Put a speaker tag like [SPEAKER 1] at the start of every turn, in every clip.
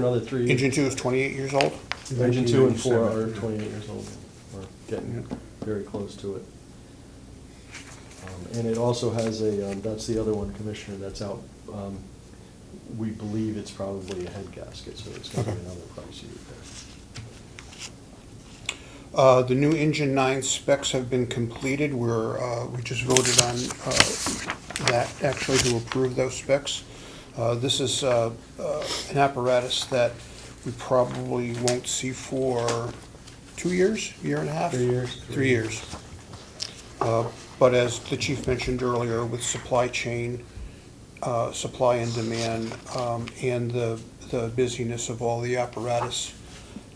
[SPEAKER 1] Another three,
[SPEAKER 2] Engine two is twenty-eight years old.
[SPEAKER 1] engine two and four are
[SPEAKER 2] 1997.
[SPEAKER 1] twenty-eight years old, or getting very close to it. Um, And it also has a, um, that's the other one, Commissioner, that's out, um, we believe it's probably a head gasket, so it's gonna be
[SPEAKER 2] Okay.
[SPEAKER 1] another pricey repair.
[SPEAKER 2] Uh, the new engine nine specs have been completed. We're, uh, we just voted on, uh, that actually to approve those specs. Uh, this is, uh, uh, an apparatus that we probably won't see for two years, year and a half?
[SPEAKER 1] Three years.
[SPEAKER 2] Three years. Uh, but as the chief mentioned earlier, with supply chain, uh, supply and demand, um, and the, the busyness of all the apparatus,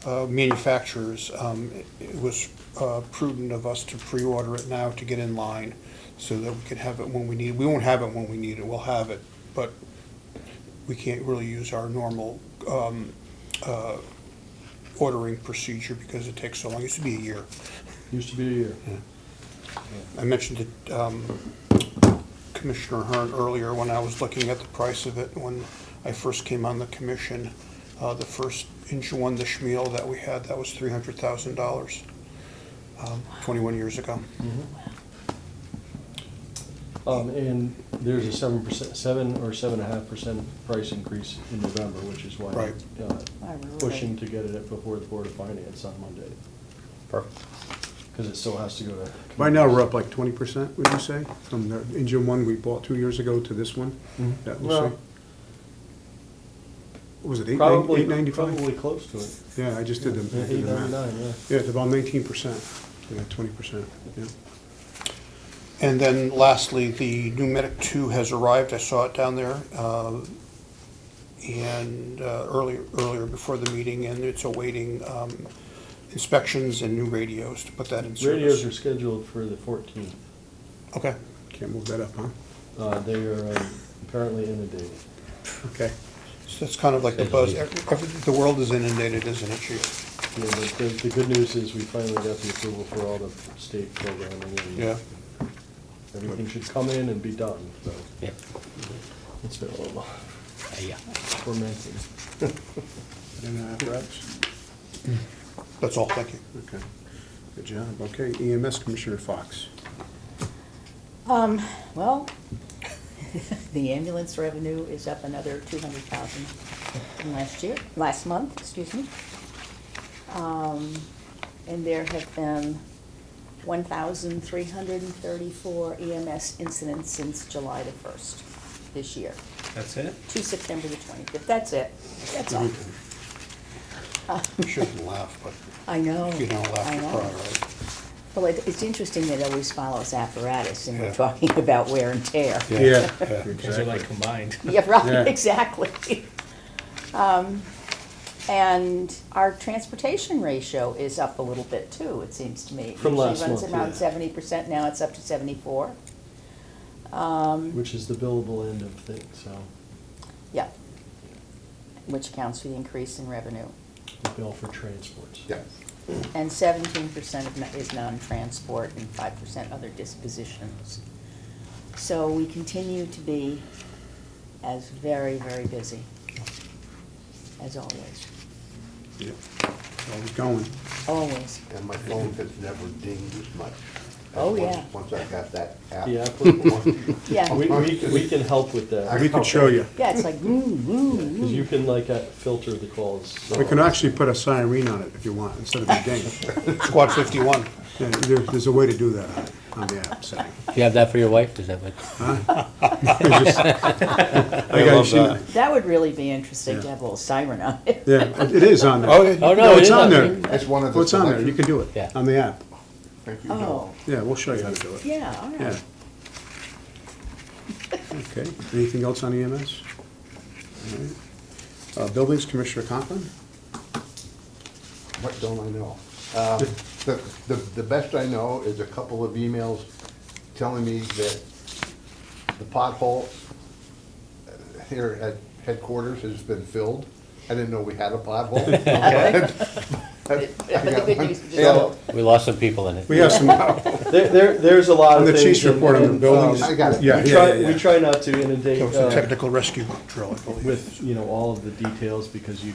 [SPEAKER 2] uh, manufacturers, um, it- it was uh, prudent of us to pre-order it now to get in line so that we could have it when we need, we won't have it when we need it, we'll have it, but we can't really use our normal um, uh, ordering procedure because it takes so long, it used to be a year.
[SPEAKER 1] Used to be a year.
[SPEAKER 2] I mentioned to um, Commissioner Hearn earlier, when I was looking at the price of it, when I first came on the commission, uh, the first engine one, the Schmiel that we had, that was three hundred thousand dollars, um, twenty-one years ago.
[SPEAKER 1] Um, and there's a seven percent, seven or seven and a half percent price increase in November, which is why I'm,
[SPEAKER 2] Right.
[SPEAKER 1] uh,
[SPEAKER 3] I remember.
[SPEAKER 1] pushing to get it before the Board of Finance on Monday,
[SPEAKER 4] Perfect.
[SPEAKER 1] because it still has to go to.
[SPEAKER 5] By now, we're up like twenty percent, would you say, from the engine one we bought two years ago to this one?
[SPEAKER 1] Mhm.
[SPEAKER 2] Mm-hmm.
[SPEAKER 5] That was,
[SPEAKER 1] Well,
[SPEAKER 5] what was it, eight
[SPEAKER 1] Probably, probably
[SPEAKER 5] ninety-five?
[SPEAKER 1] close to it.
[SPEAKER 5] Yeah, I just did the, I
[SPEAKER 1] Eight
[SPEAKER 5] did the math.
[SPEAKER 1] ninety-nine, yeah.
[SPEAKER 5] Yeah, it's about nineteen percent, yeah, twenty percent, yeah.
[SPEAKER 2] And then lastly, the new Medic two has arrived, I saw it down there, uh, and uh, earlier, earlier before the meeting, and it's awaiting um, inspections and new radios to put that in service.
[SPEAKER 1] Radios are scheduled for the fourteenth.
[SPEAKER 2] Okay,
[SPEAKER 5] Can't move that up, huh?
[SPEAKER 1] Uh, they are um, apparently inundated.
[SPEAKER 5] Okay.
[SPEAKER 2] so that's kind of like the buzz, every, every- the world is inundated, isn't it, chief?
[SPEAKER 1] Yeah, but the, the good news is we finally got the approval for all the state programming. and
[SPEAKER 2] Yeah.
[SPEAKER 1] Everything should come in and be done, so
[SPEAKER 4] Yeah,
[SPEAKER 1] it's been a little
[SPEAKER 4] Uh, yeah.
[SPEAKER 1] tormenting.
[SPEAKER 5] And uh, apparatus.
[SPEAKER 2] That's all, thank you.
[SPEAKER 5] Okay, good job, okay, EMS Commissioner Fox.
[SPEAKER 3] Um, well, the ambulance revenue is up another two hundred thousand from last year, last month, excuse me. Um, and there have been one thousand three hundred and thirty-four EMS incidents since July the first this year,
[SPEAKER 4] That's it?
[SPEAKER 3] to September the twenty-fifth. That's it. That's all.
[SPEAKER 2] You shouldn't laugh, but
[SPEAKER 3] I know.
[SPEAKER 2] if you don't laugh,
[SPEAKER 3] I
[SPEAKER 2] you
[SPEAKER 3] know.
[SPEAKER 2] cry, right?
[SPEAKER 3] Well, it, it's interesting that it always follows apparatus and
[SPEAKER 2] Yeah.
[SPEAKER 3] we're talking about wear and tear.
[SPEAKER 5] Yeah.
[SPEAKER 4] Because they're like combined.
[SPEAKER 3] Yeah, right,
[SPEAKER 5] Yeah.
[SPEAKER 3] exactly. Um, And our transportation ratio is up a little bit too, it seems to me. It
[SPEAKER 1] From last
[SPEAKER 3] Usually
[SPEAKER 1] month,
[SPEAKER 3] runs around
[SPEAKER 1] yeah.
[SPEAKER 3] seventy percent, now it's up to seventy-four.
[SPEAKER 1] Which is the billable end of things, so
[SPEAKER 3] Yeah. Which accounts for the increase in revenue.
[SPEAKER 1] the bill for transports.
[SPEAKER 3] And seventeen percent of, no- is non-transport and five percent other dispositions. So we continue to be as very, very busy, as always,
[SPEAKER 5] Yeah. Always going.
[SPEAKER 3] always.
[SPEAKER 6] And my phone has never dinged as much. as
[SPEAKER 3] Oh,
[SPEAKER 6] once-
[SPEAKER 3] yeah.
[SPEAKER 6] Once I got that app.
[SPEAKER 1] The app.
[SPEAKER 3] Yeah.
[SPEAKER 1] We, we, we can help with that,
[SPEAKER 5] We could show you.
[SPEAKER 3] Yeah, it's like, woo, woo,
[SPEAKER 1] because
[SPEAKER 3] woo.
[SPEAKER 1] you can like uh, filter the calls. so-
[SPEAKER 5] We can actually put a siren on it if you want, instead of a ding.
[SPEAKER 2] Squad fifty-one.
[SPEAKER 5] Yeah, there- There's a way to do that on the app setting.
[SPEAKER 4] Do you have that for your wife? Is that what?
[SPEAKER 5] I gotta see-
[SPEAKER 3] That would really be interesting to
[SPEAKER 5] Yeah.
[SPEAKER 3] have a little siren on it.
[SPEAKER 5] Yeah, it- it is on there.
[SPEAKER 2] Oh, yeah.
[SPEAKER 4] Oh, no,
[SPEAKER 5] No,
[SPEAKER 4] it
[SPEAKER 5] it's
[SPEAKER 4] is
[SPEAKER 5] on
[SPEAKER 4] on
[SPEAKER 5] there.
[SPEAKER 4] there.
[SPEAKER 6] That's one of
[SPEAKER 5] Oh,
[SPEAKER 6] the.
[SPEAKER 5] it's on there, you can
[SPEAKER 6] selections.
[SPEAKER 5] do it.
[SPEAKER 4] Yeah.
[SPEAKER 5] On the app.
[SPEAKER 6] Thank you, Bill.
[SPEAKER 3] Oh,
[SPEAKER 5] Yeah, we'll show you how to do it.
[SPEAKER 3] yeah, all
[SPEAKER 5] Yeah.
[SPEAKER 3] right.
[SPEAKER 5] Okay, anything else on EMS? All right. Uh, Buildings, Commissioner Conklin?
[SPEAKER 6] What don't I know? Um, The, the, the best I know is a couple of emails telling me that the pothole uh, here at headquarters has been filled. I didn't know we had a pothole.
[SPEAKER 3] But the good news is
[SPEAKER 6] Yeah.
[SPEAKER 3] just,
[SPEAKER 4] We lost some people in it.
[SPEAKER 5] We have some, on
[SPEAKER 1] There, there, there's a lot of
[SPEAKER 5] the
[SPEAKER 1] things.
[SPEAKER 5] chief's
[SPEAKER 1] and-
[SPEAKER 5] report on the
[SPEAKER 1] and,
[SPEAKER 5] buildings.
[SPEAKER 1] um,
[SPEAKER 6] I got it.
[SPEAKER 5] Yeah,
[SPEAKER 1] We
[SPEAKER 5] yeah,
[SPEAKER 1] try,
[SPEAKER 5] yeah,
[SPEAKER 1] we
[SPEAKER 5] yeah.
[SPEAKER 1] try not to inundate
[SPEAKER 2] It was a
[SPEAKER 1] uh,
[SPEAKER 2] technical rescue drill, I believe.
[SPEAKER 1] with, you know, all of the details, because you,